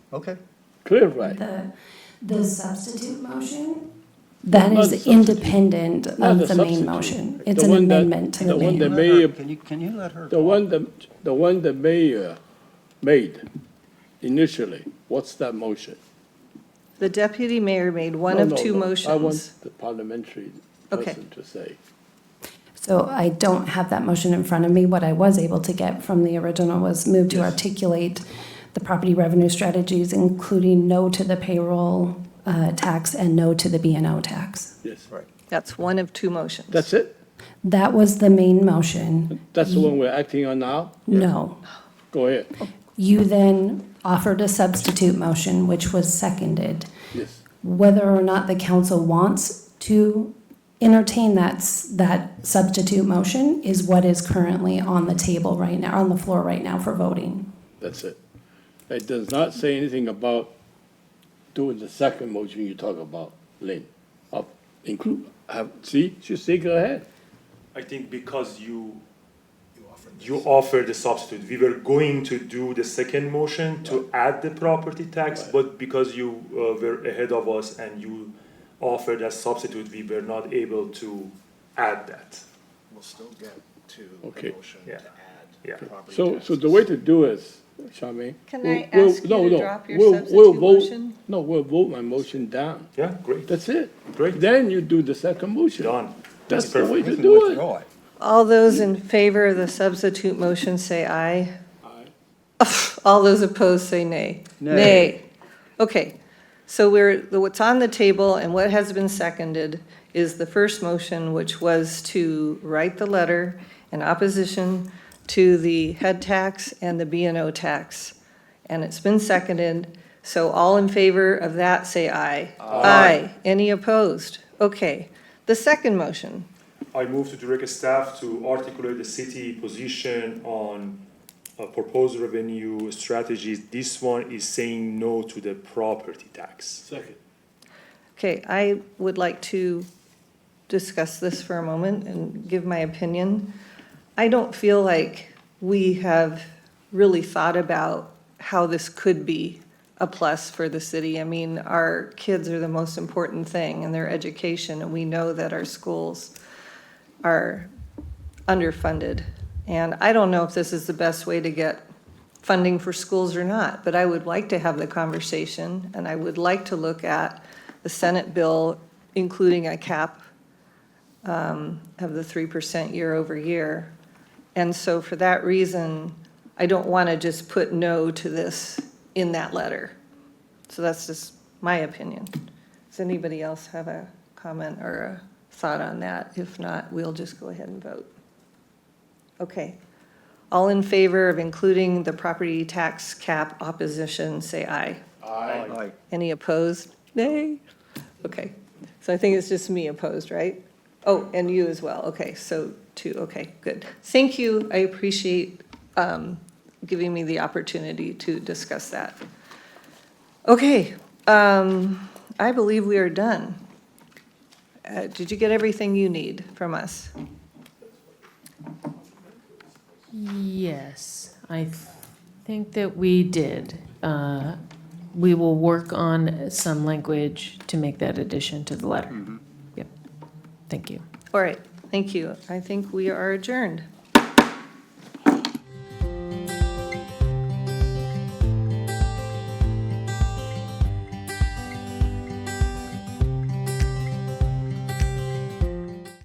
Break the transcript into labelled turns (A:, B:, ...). A: Okay,
B: Clearway.
C: The, the substitute motion, that is
B: Not
C: independent
B: Not
C: of the
B: substitute.
C: main motion.
B: The
C: It's an
B: one that-
C: amendment to the
B: the one
C: main.
B: that- mayor-
A: Can you, can you let her?
B: The one the, the one the mayor made initially, what's that motion?
D: The deputy mayor made one
B: No,
D: of
B: no,
D: two
B: no, I want
D: motions.
B: the parliamentary
D: Okay.
B: person to say.
C: So I don't have that motion in front of me. What I was able to get from the original was move to articulate the property revenue strategies, including no to the payroll uh, tax and no to the B and O tax.
B: Yes,
A: Right,
D: That's one of two motions.
B: that's it?
C: That was the main motion,
B: That's the one we're acting on now?
C: no.
B: Go ahead.
D: Oh.
C: You then offered a substitute motion, which was seconded.
B: Yes,
C: whether or not the council wants to entertain that, s- that substitute motion is what is currently on the table right now, on the floor right now for voting.
B: that's it. It does not say anything about doing the second motion you talk about, Lynn. Up, include, have, see, she say go ahead.
E: I think because you, you offered the substitute, we were going to do the second motion to add the property tax, but because you uh, were ahead of us and you offered a substitute, we were not able to add that.
F: We'll still get to
B: Okay.
F: the motion to
E: Yeah. Yeah.
F: add property
B: So, so
F: taxes.
B: the way to do is, Charmaine.
D: Can
B: we'll-
D: I
B: we'll-
D: ask you
B: no,
D: to
B: no,
D: drop your
B: we'll- we'll
D: substitute
B: vote-
D: motion?
B: No, we'll vote my motion down.
E: Yeah, great,
B: That's it.
E: Great.
B: Then you do the second motion.
E: done.
B: That's the way
E: perfect.
B: to
A: you can
B: do it.
A: withdraw it.
D: All those in favor of the substitute motion say aye. All those opposed say nay.
A: Nay.
D: Okay, so we're, the- what's on the table and what has been seconded is the first motion, which was to write the letter in opposition to the head tax and the B and O tax. And it's been seconded, so all in favor of that say aye. Aye. Any opposed? Okay. The second motion,
E: I move to direct staff to articulate the city position on uh, proposed revenue strategies. This one is saying no to the property tax.
B: Second.
D: Okay, I would like to discuss this for a moment and give my opinion. I don't feel like we have really thought about how this could be a plus for the city. I mean, our kids are the most important thing in their education, and we know that our schools are underfunded. And I don't know if this is the best way to get funding for schools or not, but I would like to have the conversation, and I would like to look at the Senate bill, including a cap um, of the 3% year over year. And so for that reason, I don't want to just put no to this in that letter. So that's just my opinion. Does anybody else have a comment or a thought on that? If not, we'll just go ahead and vote. Okay. All in favor of including the property tax cap opposition, say aye.
A: Aye.
D: Any opposed? Nay? Okay. So I think it's just me opposed, right? Oh, and you as well. Okay, so two, okay, good. Thank you. I appreciate um, giving me the opportunity to discuss that. Okay, um, I believe we are done. Uh, Did you get everything you need from us?
G: Yes, I th- think that we did. Uh, We will work on some language to make that addition to the letter. Yep, thank you.
D: All right, thank you. I think we are adjourned.